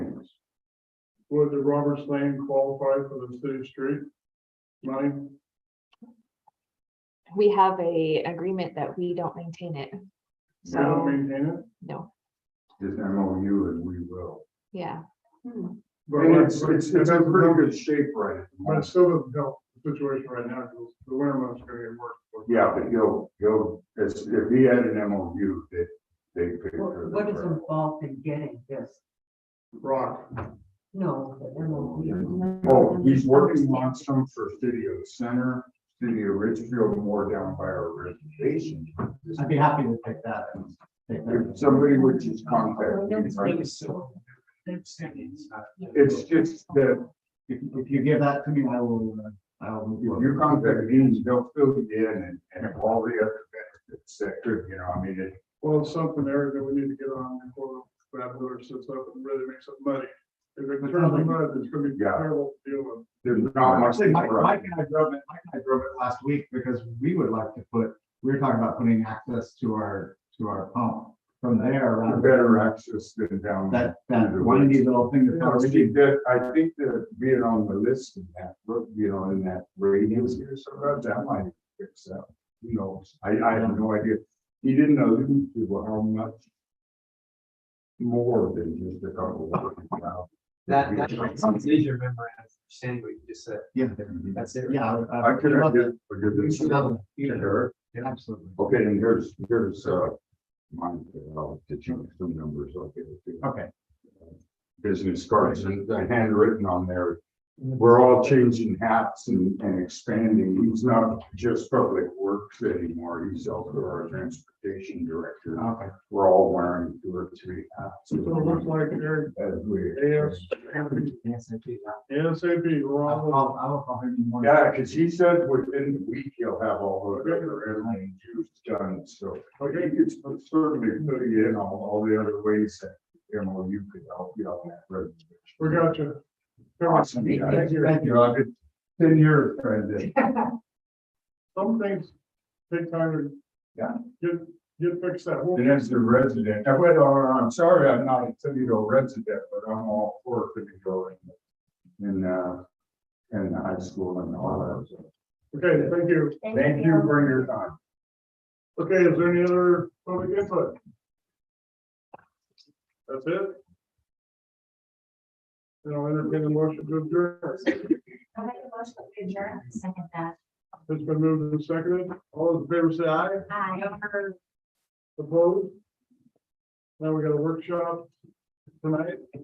Would the Roberts Lane qualify for the city street? Money, We have a agreement that we don't maintain it. we don't So, maintain it? no, Is MOU and we will. yeah. But And it's, we're- it's, it's in pretty good shape right at the But it moment. still doesn't help the situation right now, because the winter months are gonna get worse. Yeah, but you'll, you'll, it's, if he had an MOU, they, they. could- What what is involved in getting this? Rock, No, the MOU. Oh, he's working on some for Studio Center, Studio Ridgefield, more down by our reservation. I'd be happy to pick that. and take that. If somebody would just contact me, right? it's just that If, if you give that to me, I will, uh, I will. if you contact me, they'll fill you in and, and all the other benefits that could, you know, I mean, it. well, it's something there that we need to get on before that weather sets up and really makes it muddy. If it turns to mud, it's gonna be Yeah. terrible to deal with. There's not much. Actually, Mike, Mike and I drove it, Mike and I drove it last week because we would like to put, we were talking about putting access to our, to our pump from there. A rather- Better access than down. That, that windy little thing Yeah, I that's. think that, I think that being on the list and that, you know, in that radius here, so that, that might fix that. You know, I, I have no idea. He didn't allude to how much more than just a couple of. That, that's right, so it's easier to remember and understand what you just said, Yeah, that's it. right? yeah. I could, I could, I could You do should some have a- to her. Absolutely. Okay, and here's, here's, uh, mine, uh, I'll get you some numbers, I'll give it to you. Okay, business cards and the handwritten on there. We're all changing hats and, and expanding. He's not just public works anymore. He's also our transportation director. okay. We're all wearing two or three hats. So Oh. it looks like Eric, As we. AS, Yes, I do. ASAP, we're I'll, all, I'll, I'll call him in the morning. Yeah, cause he said within the week he'll have all of the other airline juice done, so. I think it's certainly put you in on all the other ways that MOU could help you on that. road. we got you. Awesome. yeah. Thank you. I've been ten years trying to Some things take time to. Yeah. Get, get fixed that. And as a resident, I went, oh, I'm sorry, I'm not a Toledo resident, but I'm all for Toledo and, and, uh, and high school and all Okay, thank you. that. Thank you for your time. Okay, is there any other public input? That's it? Then I'll entertain the motion to adjourn. I'll make a motion to adjourn, second that. It's been moved and seconded. All those in favor say aye. Aye. Opposed? Now we got a workshop tonight.